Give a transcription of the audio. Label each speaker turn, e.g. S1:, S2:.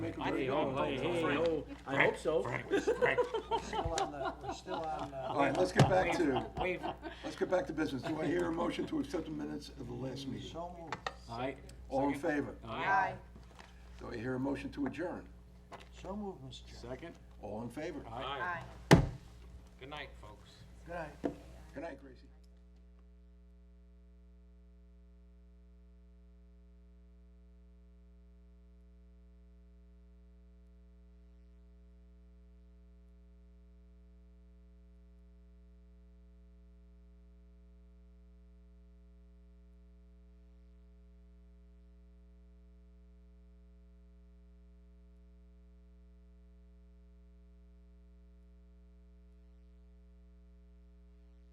S1: Make a
S2: I
S1: very
S2: think,
S1: good
S2: oh,
S1: vote.
S2: hey, hey, oh, I hope so.
S3: Still on the, we're still on,
S1: All
S3: uh,
S1: right, let's get back to,
S2: Wave.
S1: let's get back to business. Do I hear a motion to accept the minutes of the last meeting?
S3: so moved.
S2: Aye.
S1: All in favor?
S2: Aye.
S1: Do I hear a motion to adjourn?
S3: So moved, Mr. Chairman.
S2: Second?
S1: All in favor?
S2: Aye.
S4: Aye.
S2: Good night, folks.
S3: Good night.
S1: Good night, Gracie.